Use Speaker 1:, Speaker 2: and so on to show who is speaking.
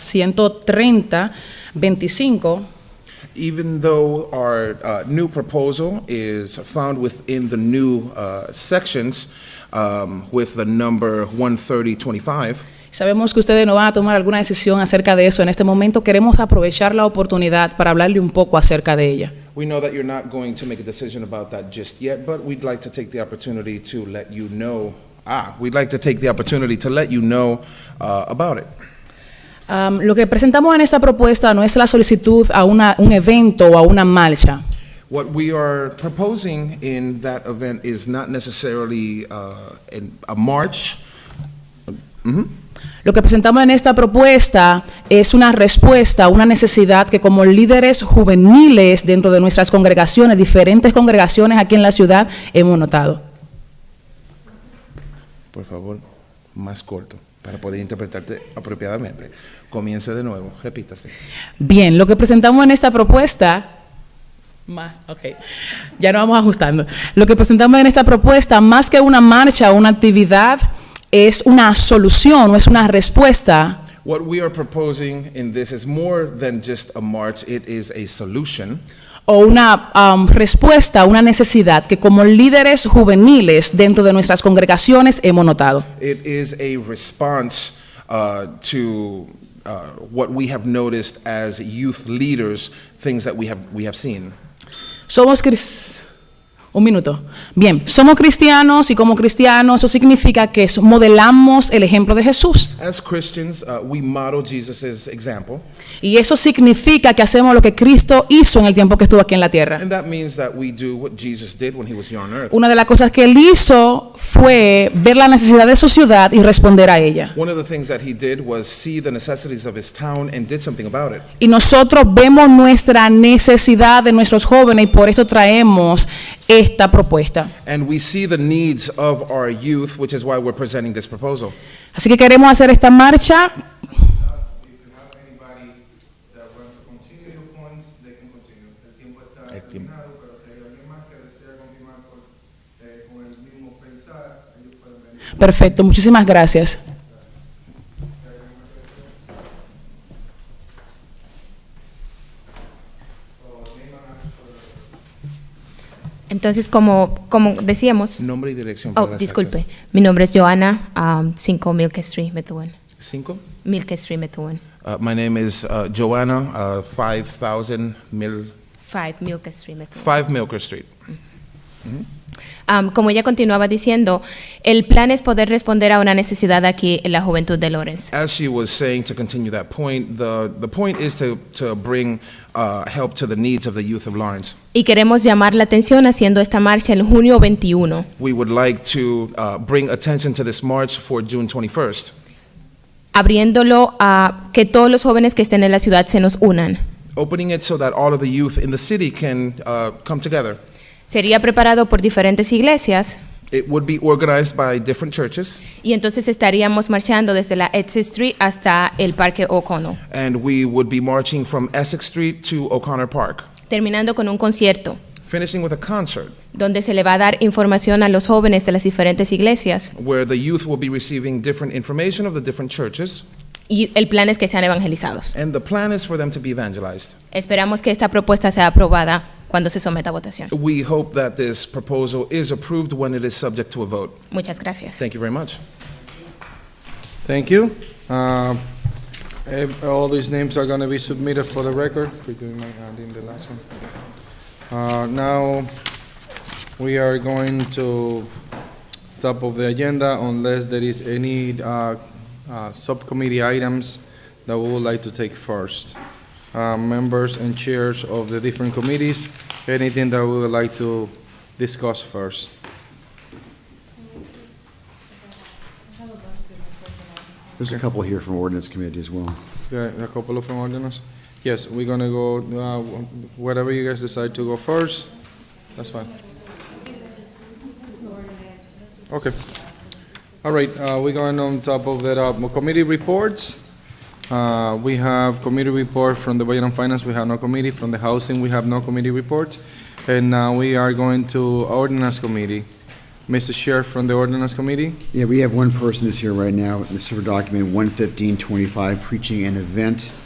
Speaker 1: 130, 25,
Speaker 2: Even though our uh, new proposal is found within the new uh, sections um, with the number 13025,
Speaker 1: Sabemos que ustedes no van a tomar alguna decisión acerca de eso. En este momento queremos aprovechar la oportunidad para hablarle un poco acerca de ella.
Speaker 2: we know that you're not going to make a decision about that just yet, but we'd like to take the opportunity to let you know, ah, we'd like to take the opportunity to let you know uh, about it.
Speaker 1: Am, lo que presentamos en esta propuesta no es la solicitud a una- un evento o a una marcha.
Speaker 2: What we are proposing in that event is not necessarily uh, an- a march,
Speaker 1: Lo que presentamos en esta propuesta es una respuesta a una necesidad que como líderes juveniles dentro de nuestras congregaciones, diferentes congregaciones aquí en la ciudad, hemos notado.
Speaker 2: Por favor, más corto, para poder interpretarte apropiadamente. Comience de nuevo, repítase.
Speaker 1: Bien, lo que presentamos en esta propuesta, más, ok, ya nos vamos ajustando. Lo que presentamos en esta propuesta, más que una marcha o una actividad, es una solución, o es una respuesta
Speaker 2: What we are proposing in this is more than just a march, it is a solution.
Speaker 1: o una am, respuesta a una necesidad que como líderes juveniles dentro de nuestras congregaciones hemos notado.
Speaker 2: It is a response uh, to uh, what we have noticed as youth leaders, things that we have, we have seen.
Speaker 1: Somos cris- Un minuto. Bien, somos cristianos y como cristianos eso significa que so- modelamos el ejemplo de Jesús.
Speaker 2: As Christians, uh, we model Jesus' example,
Speaker 1: Y eso significa que hacemos lo que Cristo hizo en el tiempo que estuvo aquí en la tierra.
Speaker 2: and that means that we do what Jesus did when he was here on earth.
Speaker 1: Una de las cosas que él hizo fue ver la necesidad de su ciudad y responder a ella.
Speaker 2: One of the things that he did was see the necessities of his town and did something about it.
Speaker 1: Y nosotros vemos nuestra necesidad de nuestros jóvenes y por eso traemos esta propuesta.
Speaker 2: And we see the needs of our youth, which is why we're presenting this proposal.
Speaker 1: Así que queremos hacer esta marcha.
Speaker 3: If you have anybody that wants to continue the points, they can continue. El tiempo está
Speaker 2: El tiempo.
Speaker 3: terminado, pero si hay alguien más que desea continuar con, eh, con el mismo pensar, ellos pueden venir.
Speaker 1: Perfecto, muchísimas gracias.
Speaker 4: Entonces, como, como decíamos,
Speaker 2: Nombre y dirección.
Speaker 4: oh,
Speaker 2: para las
Speaker 4: disculpe,
Speaker 2: actas.
Speaker 4: mi nombre es Joana, um, 5 Milk Street, Methuen.
Speaker 2: Cinco.
Speaker 4: Milk Street, Methuen.
Speaker 2: Uh, my name is uh, Joanna, uh, 5000 Mil,
Speaker 4: 5 Milk Street, Methuen.
Speaker 2: 5 Milker Street.
Speaker 4: Um, como ella continuaba diciendo, el plan es poder responder a una necesidad aquí en la juventud de Lawrence.
Speaker 2: As she was saying, to continue that point, the, the point is to, to bring uh, help to the needs of the youth of Lawrence.
Speaker 4: Y queremos llamar la atención haciendo esta marcha el junio 21.
Speaker 2: We would like to uh, bring attention to this march for June 21st,
Speaker 4: abriéndolo a que todos los jóvenes que estén en la ciudad se nos unan.
Speaker 2: opening it so that all of the youth in the city can uh, come together.
Speaker 4: Sería preparado por diferentes iglesias
Speaker 2: It would be organized by different churches,
Speaker 4: y entonces estaríamos marchando desde la Exit Street hasta el Parque O'Connell,
Speaker 2: and we would be marching from Essex Street to O'Connor Park,
Speaker 4: terminando con un concierto
Speaker 2: finishing with a concert
Speaker 4: donde se le va a dar información a los jóvenes de las diferentes iglesias
Speaker 2: where the youth will be receiving different information of the different churches,
Speaker 4: y el plan es que sean evangelizados.
Speaker 2: and the plan is for them to be evangelized.
Speaker 4: Esperamos que esta propuesta sea aprobada cuando se someta a votación.
Speaker 2: We hope that this proposal is approved when it is subject to a vote.
Speaker 4: Muchas gracias.
Speaker 2: Thank you very much.
Speaker 5: Thank you. Um, ev- All these names are going to be submitted for the record. We're doing my- adding the last one. Uh, Now, we are going to top of the agenda unless there is any uh, uh, subcommittee items that we would like to take first. Uh, Members and chairs of the different committees, anything that we would like to discuss first.
Speaker 6: There's a couple here from ordinance committee as well.
Speaker 5: Yeah, a couple of them ordinance. Yes, we're gonna go, uh, whatever you guys decide to go first, that's fine. Okay. All right, uh, we're going on top of that, uh, committee reports. Uh, we have committee report from the Budget and Finance, we have no committee, from the Housing, we have no committee report. And now we are going to ordinance committee. Mr. Chair from the ordinance committee.
Speaker 6: Yeah, we have one person is here right now, this is for document 11525, preaching an event